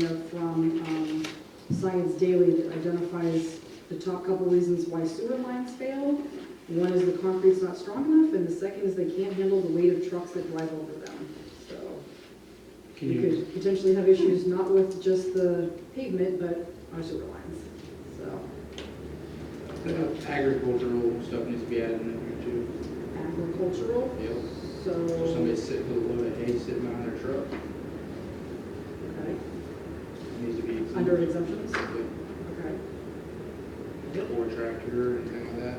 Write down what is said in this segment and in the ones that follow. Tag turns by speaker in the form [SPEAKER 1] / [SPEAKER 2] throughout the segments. [SPEAKER 1] you know, from um, Science Daily that identifies the top couple reasons why sewer lines fail. One is the concrete's not strong enough, and the second is they can't handle the weight of trucks that drive over them. So
[SPEAKER 2] Can
[SPEAKER 1] you
[SPEAKER 2] you,
[SPEAKER 1] could potentially have issues not with just the pavement, but our sewer lines, so.
[SPEAKER 2] uh, agricultural stuff needs to be added in there too.
[SPEAKER 1] Agricultural,
[SPEAKER 2] Yep.
[SPEAKER 1] so.
[SPEAKER 2] So somebody's sitting with a load of hay sitting on their truck,
[SPEAKER 1] Okay.
[SPEAKER 2] it needs to be. exempt.
[SPEAKER 1] Under exemptions,
[SPEAKER 2] Yep.
[SPEAKER 1] okay.
[SPEAKER 2] Or tractor and things like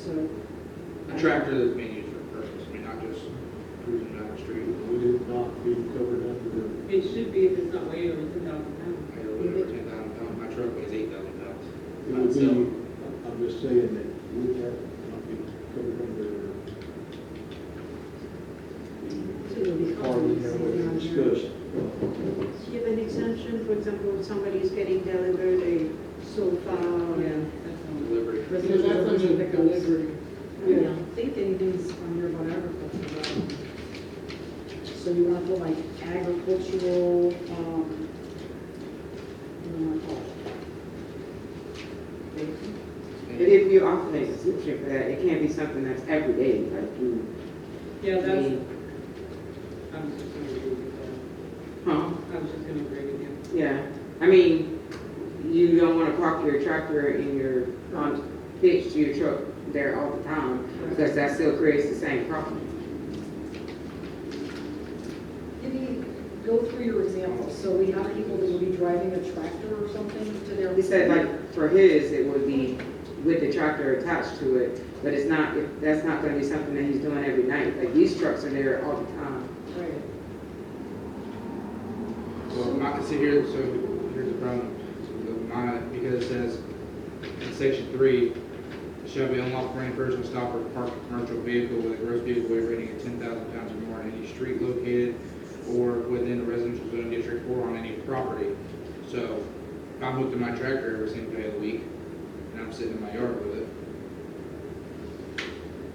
[SPEAKER 1] So,
[SPEAKER 2] that. A tractor that's being used for purpose, I mean, not just cruising down the street.
[SPEAKER 3] Would it not be covered under
[SPEAKER 4] It should be if it's not way over ten thousand pounds.
[SPEAKER 2] I got a load of ten thousand pounds, my truck weighs eight thousand pounds.
[SPEAKER 3] the, it would be, I'm just saying that, would that not be covered under
[SPEAKER 1] it'll be
[SPEAKER 3] the part we have
[SPEAKER 1] compensated on
[SPEAKER 3] already
[SPEAKER 1] here.
[SPEAKER 3] discussed?
[SPEAKER 5] Give an exemption, for example, if somebody is getting delivered a sofa or
[SPEAKER 4] Yeah, that's one.
[SPEAKER 2] Delivery.
[SPEAKER 1] Residential commercial pickups. I
[SPEAKER 5] Yeah.
[SPEAKER 1] don't think anything's on here about agriculture. but- So you want to put like agricultural, um, what do you want to call it?
[SPEAKER 6] But if you offer an exemption for that, uh, it can't be something that's every day, like you,
[SPEAKER 4] Yeah, that's, I was just gonna agree with
[SPEAKER 6] huh?
[SPEAKER 4] that. I was just gonna agree with you.
[SPEAKER 6] Yeah, I mean, you don't wanna park your tractor in your, on, hitch to your truck there all the time, because that still creates the same problem.
[SPEAKER 1] Maybe go through your examples, so we have people that will be driving a tractor or something to their.
[SPEAKER 6] He said, like, for his, it would be with the tractor attached to it, but it's not, if- that's not gonna be something that he's doing every night, like, these trucks are there all the time.
[SPEAKER 1] Right.
[SPEAKER 2] Well, my, see here, so here's the problem. So My, because it says in section three, shall be unlawful for any person to stop or park a commercial vehicle with a gross vehicle weight rating of ten thousand pounds or more on any street located or within a residential zone district or on any property. So if I'm hooked to my tractor every single day of the week and I'm sitting in my yard with it.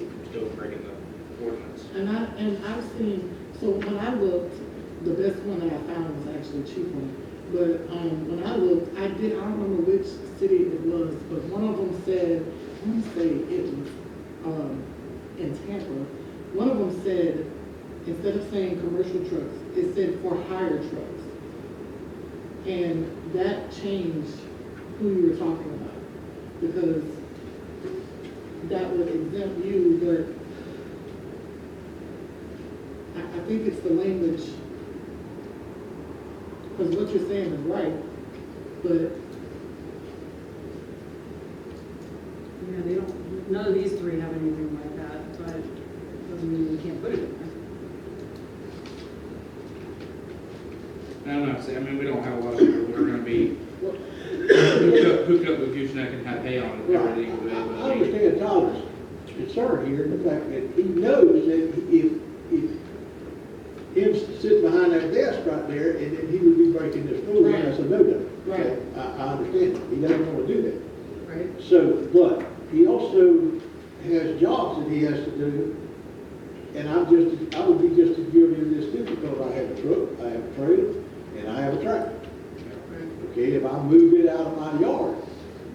[SPEAKER 2] I'm still breaking the ordinance.
[SPEAKER 7] And I, and I've seen, so when I looked, the best one that I found was actually a cheap one. But, um, when I looked, I did, I don't remember which city it was, but one of them said, I want to say it was, um, in Tampa. One of them said, instead of saying commercial trucks, it said for hire trucks. And that changed who you were talking about, because that would exempt you, but I, I think it's the language, because what you're saying is right, but
[SPEAKER 1] Yeah, they don't, none of these three have anything like that, but doesn't mean we can't put it in there.
[SPEAKER 2] I don't know, see, I mean, we don't have a lot of people that are gonna be hooked up, hooked up with gooseneck and have hay on it every single day, but
[SPEAKER 3] I
[SPEAKER 2] I mean,
[SPEAKER 3] understand Tom's concern here, the fact that he knows that if, if him sitting behind that desk right there, and then he would be breaking this rule, and that's a no no.
[SPEAKER 7] Right.
[SPEAKER 3] I, I understand, that. he doesn't wanna do that.
[SPEAKER 1] Right.
[SPEAKER 3] So, but he also has jobs that he has to do, and I'm just, I would be just as guilty of this too, because I have a truck, I have a trailer, and I have a tractor. Okay, if I move it out of my yard,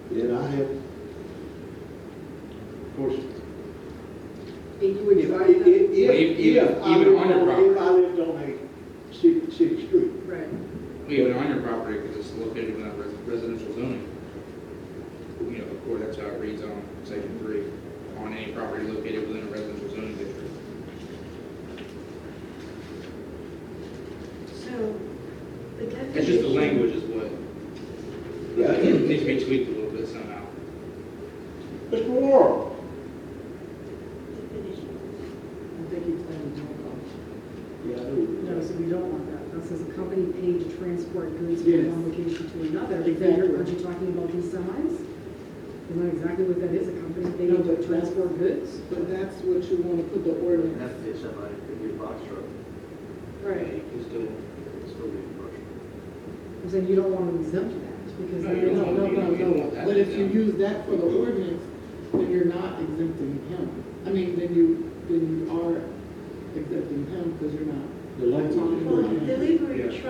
[SPEAKER 3] then I have, of course,
[SPEAKER 1] And you would
[SPEAKER 3] if I,
[SPEAKER 1] drive
[SPEAKER 3] if,
[SPEAKER 1] that,
[SPEAKER 3] if, if I
[SPEAKER 2] Even
[SPEAKER 3] lived
[SPEAKER 2] on your
[SPEAKER 3] on, if I lived on a city, city street,
[SPEAKER 1] right,
[SPEAKER 2] even on your property, because it's located within res- residential zoning. You know, of course, that's how it reads on section three, on any property located within a residential zoning district.
[SPEAKER 5] so the definition.
[SPEAKER 2] It's just the language is what,
[SPEAKER 3] yeah,
[SPEAKER 2] it needs to be tweaked a little bit somehow.
[SPEAKER 3] Mr. Laurel,
[SPEAKER 5] Definition.
[SPEAKER 7] I think it's saying no cost.
[SPEAKER 3] yeah, I know.
[SPEAKER 1] no, so we don't want that, that says a company paid to transport goods
[SPEAKER 7] Yes.
[SPEAKER 1] from one location to another. But then you're- Aren't you talking about these semis? Isn't that exactly what that is, a company
[SPEAKER 7] No,
[SPEAKER 1] paid
[SPEAKER 7] but
[SPEAKER 1] to
[SPEAKER 7] that-
[SPEAKER 1] transport goods?
[SPEAKER 7] But that's what you want to put the ordinance.
[SPEAKER 8] That's the HMI, could be a box truck,
[SPEAKER 1] Right.
[SPEAKER 2] You can still,
[SPEAKER 8] it's still be a box truck.
[SPEAKER 1] I'm saying you don't want to exempt that, because that
[SPEAKER 2] No, you
[SPEAKER 7] No,
[SPEAKER 1] is,
[SPEAKER 2] don't.
[SPEAKER 7] no, no,
[SPEAKER 2] You don't want that.
[SPEAKER 7] no, but if you use that for the ordinance, then you're not exempting him. I mean, then you, then you are exempting him because you're not
[SPEAKER 3] the language.
[SPEAKER 5] Well, delivery
[SPEAKER 2] Yeah.
[SPEAKER 5] truck